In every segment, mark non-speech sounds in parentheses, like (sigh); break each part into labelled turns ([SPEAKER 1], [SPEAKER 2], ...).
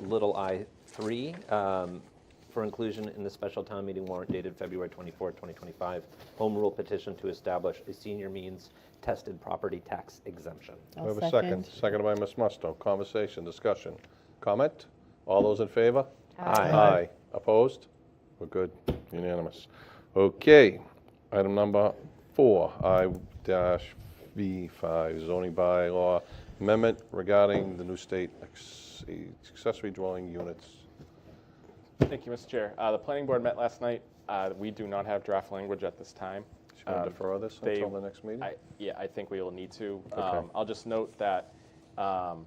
[SPEAKER 1] little i three um, for inclusion in the special town meeting warrant dated February 24, 2025, home rule petition to establish a senior means tested property tax exemption.
[SPEAKER 2] I'll
[SPEAKER 3] We have a second, seconded by Ms. Musto. Conversation, discussion, comment? All those in favor?
[SPEAKER 1] Aye.
[SPEAKER 3] Opposed? We're good, unanimous. Okay, item number four, I dash V five, zoning bylaw amendment regarding the new state acc- accessory dwelling units.
[SPEAKER 4] Thank you, Mr. Chair. Uh, The planning board met last night. Uh, We do not have draft language at this time.
[SPEAKER 3] Should we
[SPEAKER 4] Um,
[SPEAKER 3] defer this
[SPEAKER 4] they-
[SPEAKER 3] until the next meeting?
[SPEAKER 4] I- Yeah, I think we will need to.
[SPEAKER 3] Okay.
[SPEAKER 4] Um, I'll just note that um,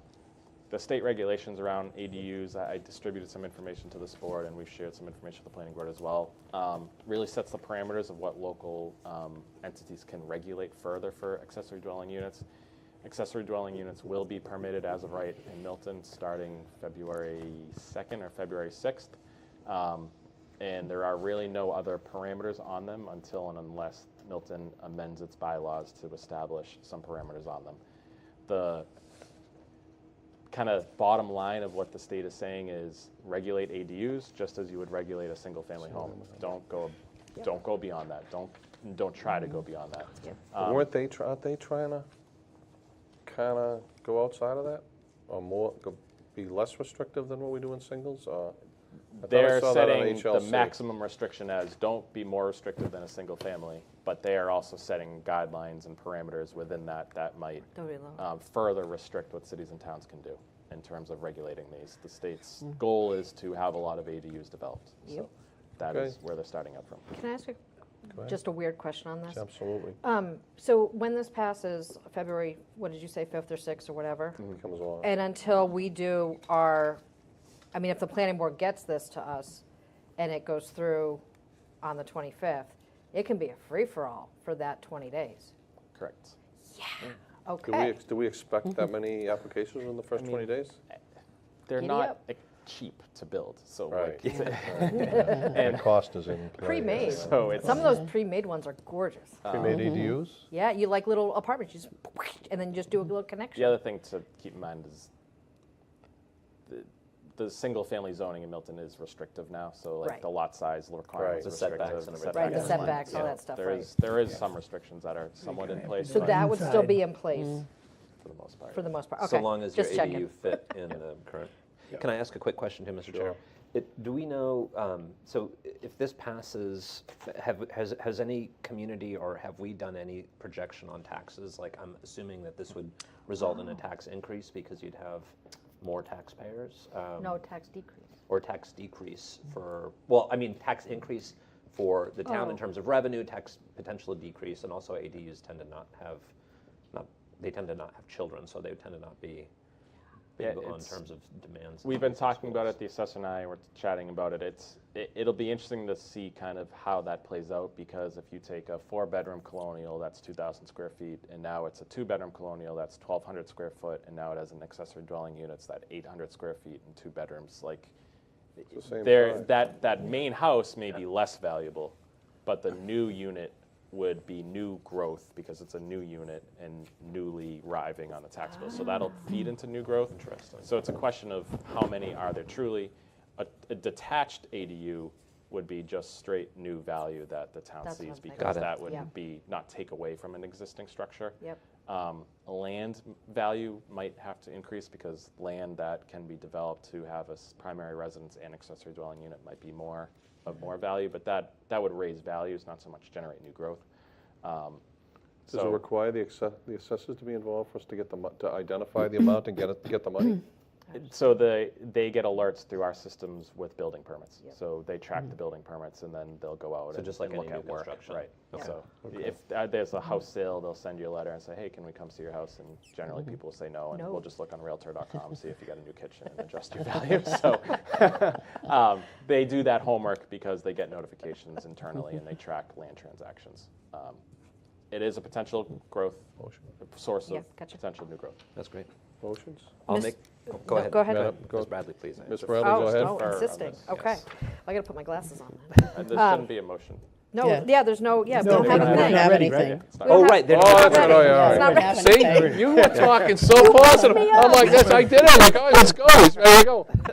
[SPEAKER 4] the state regulations around ADUs, I I distributed some information to this board, and we've shared some information with the planning board as well, um, really sets the parameters of what local um, entities can regulate further for accessory dwelling units. Accessory dwelling units will be permitted as of right in Milton starting February 2nd or February 6th. Um, And there are really no other parameters on them until and unless Milton amends its bylaws to establish some parameters on them. The kind of bottom line of what the state is saying is regulate ADUs just as you would regulate a single-family home. Don't go, don't go beyond that. Don't, don't try to go beyond that.
[SPEAKER 3] But
[SPEAKER 4] Um,
[SPEAKER 3] Weren't they, try- aren't they trying to kind of go outside of that? Or more, go- be less restrictive than what we do in singles, or? I thought I
[SPEAKER 4] They're
[SPEAKER 3] saw that on
[SPEAKER 4] setting the
[SPEAKER 3] HLC.
[SPEAKER 4] maximum restriction as don't be more restrictive than a single family, but they are also setting guidelines and parameters within that that might
[SPEAKER 5] Go really low.
[SPEAKER 4] um, further restrict what cities and towns can do in terms of regulating these. The state's goal is to have a lot of ADUs developed. So
[SPEAKER 5] Yep.
[SPEAKER 4] that is
[SPEAKER 3] Okay.
[SPEAKER 4] where they're starting up from.
[SPEAKER 5] Can I ask a-
[SPEAKER 3] ahead.
[SPEAKER 5] just a weird question on this?
[SPEAKER 3] Absolutely,
[SPEAKER 5] Um, So when this passes, February, what did you say, 5th or 6th or whatever?
[SPEAKER 4] Mm.
[SPEAKER 3] Mm, comes along.
[SPEAKER 5] And until we do our, I mean, if the planning board gets this to us and it goes through on the 25th, it can be a free-for-all for that 20 days.
[SPEAKER 4] Correct.
[SPEAKER 3] Do we,
[SPEAKER 5] Okay.
[SPEAKER 3] ex- do we expect
[SPEAKER 5] Mm-hmm.
[SPEAKER 3] that many applications in the first 20 days?
[SPEAKER 4] They're
[SPEAKER 5] Giddy
[SPEAKER 4] not
[SPEAKER 5] up.
[SPEAKER 4] like, cheap to build, so
[SPEAKER 3] Right.
[SPEAKER 4] like, (laughs)
[SPEAKER 3] And cost is in play.
[SPEAKER 5] (laughs) Pre-made.
[SPEAKER 4] so it's um,
[SPEAKER 5] Some of those pre-made ones are gorgeous.
[SPEAKER 3] Pre-made E ADUs?
[SPEAKER 5] Yeah, you like little apartments, you just, and then you just do a little connection.
[SPEAKER 4] The other thing to keep in mind is the, the single-family zoning in Milton is restrictive now, so like
[SPEAKER 5] Right.
[SPEAKER 4] the lot size requirements
[SPEAKER 3] Right.
[SPEAKER 4] are
[SPEAKER 1] The setbacks
[SPEAKER 4] restrictive.
[SPEAKER 1] and
[SPEAKER 4] the
[SPEAKER 1] everything.
[SPEAKER 5] Right, the
[SPEAKER 4] setbacks are-
[SPEAKER 5] setbacks, all that stuff,
[SPEAKER 4] There
[SPEAKER 5] right.
[SPEAKER 4] is, there is some restrictions that are somewhat in place,
[SPEAKER 5] So
[SPEAKER 4] but
[SPEAKER 5] that would still
[SPEAKER 6] Inside.
[SPEAKER 5] be in place
[SPEAKER 4] for the most part.
[SPEAKER 5] for the most part, okay.
[SPEAKER 1] So long as your
[SPEAKER 5] just checking.
[SPEAKER 1] ADU fit in the current. Can I ask a quick question to Mr. Chair?
[SPEAKER 3] Sure.
[SPEAKER 1] It- Do we know, um, so i- if this passes, have, has, has any community or have we done any projection on taxes? Like, I'm assuming that this would result
[SPEAKER 5] Oh.
[SPEAKER 1] in a tax increase because you'd have more taxpayers? um,
[SPEAKER 5] No tax decrease.
[SPEAKER 1] Or tax decrease for, well, I mean, tax increase for the town in
[SPEAKER 5] Oh.
[SPEAKER 1] terms of revenue, tax potential decrease, and also ADUs tend to not have, not, they tend to not have children, so they tend to not be
[SPEAKER 4] Yeah,
[SPEAKER 1] big on
[SPEAKER 4] it's-
[SPEAKER 1] terms of demands.
[SPEAKER 4] We've been talking about it, the assessor and I were chatting about it. It's, it, it'll be interesting to see kind of how that plays out because if you take a four-bedroom colonial, that's two thousand square feet, and now it's a two-bedroom colonial, that's twelve hundred square foot, and now it has an accessory dwelling unit, it's that eight hundred square feet and two bedrooms, like,
[SPEAKER 3] It's the same
[SPEAKER 4] there,
[SPEAKER 3] size.
[SPEAKER 4] uh, that, that main house may be less valuable, but the new unit would be new growth because it's a new unit and newly arriving on the tax bill. So that'll feed into new growth. Interesting. So it's a question of how many are there truly. A, a detached ADU would be just straight new value that the town
[SPEAKER 5] That's what I'm
[SPEAKER 4] sees
[SPEAKER 5] thinking.
[SPEAKER 1] Got
[SPEAKER 4] because
[SPEAKER 1] it.
[SPEAKER 4] that would
[SPEAKER 5] Yeah.
[SPEAKER 4] be, not take away from an existing structure.
[SPEAKER 5] Yep.
[SPEAKER 4] Um, Land value might have to increase because land that can be developed to have a s- primary residence and accessory dwelling unit might be more, of more value, but that, that would raise values, not so much generate new growth. Um,
[SPEAKER 3] Does it
[SPEAKER 4] So,
[SPEAKER 3] require the access- the assessors to be involved for us to get the, mo- to identify the amount and get it, get the
[SPEAKER 5] (clears throat)
[SPEAKER 3] money?
[SPEAKER 4] so the, they get alerts through our systems with building permits.
[SPEAKER 5] Yep.
[SPEAKER 4] So they track the building permits and then they'll go out
[SPEAKER 1] So
[SPEAKER 4] and
[SPEAKER 1] just like
[SPEAKER 4] and look
[SPEAKER 1] any new
[SPEAKER 4] at work.
[SPEAKER 1] construction.
[SPEAKER 4] Right.
[SPEAKER 1] Okay.
[SPEAKER 4] So if uh, there's a house
[SPEAKER 5] Mm-hmm.
[SPEAKER 4] sale, they'll send you a letter and say, hey, can we come see your house? And generally people say no, and
[SPEAKER 5] No.
[SPEAKER 4] we'll just look on Realtor.com, see if you got a new kitchen and adjust your value. So (laughs) um, they do that homework because they get notifications internally and they track land transactions. Um, It is a potential growth, source
[SPEAKER 5] Yeah,
[SPEAKER 4] of
[SPEAKER 5] gotcha.
[SPEAKER 4] potential new growth.
[SPEAKER 1] That's great.
[SPEAKER 3] Motions?
[SPEAKER 1] I'll
[SPEAKER 5] Miss-
[SPEAKER 1] make, oh, go
[SPEAKER 5] no,
[SPEAKER 1] ahead.
[SPEAKER 5] go ahead.
[SPEAKER 3] Madam, go-
[SPEAKER 1] Ms. Bradley, please.
[SPEAKER 3] Ms.
[SPEAKER 1] It's-
[SPEAKER 3] Bradley, go
[SPEAKER 5] Oh,
[SPEAKER 3] ahead.
[SPEAKER 5] oh,
[SPEAKER 4] Fur on
[SPEAKER 5] insisting,
[SPEAKER 4] this,
[SPEAKER 5] okay.
[SPEAKER 4] yes.
[SPEAKER 5] I gotta put my glasses on then.
[SPEAKER 4] And There shouldn't be a motion.
[SPEAKER 5] No,
[SPEAKER 2] Yeah.
[SPEAKER 5] yeah, there's no, yeah, we
[SPEAKER 2] No,
[SPEAKER 5] don't
[SPEAKER 2] we
[SPEAKER 5] have
[SPEAKER 2] don't
[SPEAKER 5] a
[SPEAKER 2] have
[SPEAKER 5] thing.
[SPEAKER 2] it.
[SPEAKER 5] We
[SPEAKER 2] ready.
[SPEAKER 4] Right. It's not-
[SPEAKER 5] don't
[SPEAKER 1] Oh,
[SPEAKER 5] have-
[SPEAKER 1] right, they're
[SPEAKER 3] Oh,
[SPEAKER 1] not
[SPEAKER 3] that's right, oh,
[SPEAKER 1] ready.
[SPEAKER 3] yeah,
[SPEAKER 5] It's not
[SPEAKER 3] all right.
[SPEAKER 5] ready.
[SPEAKER 3] (laughs)
[SPEAKER 5] (laughs)
[SPEAKER 3] See, you were talking so positive. I'm like, that's, I did it, like, oh, let's go, he's ready to go.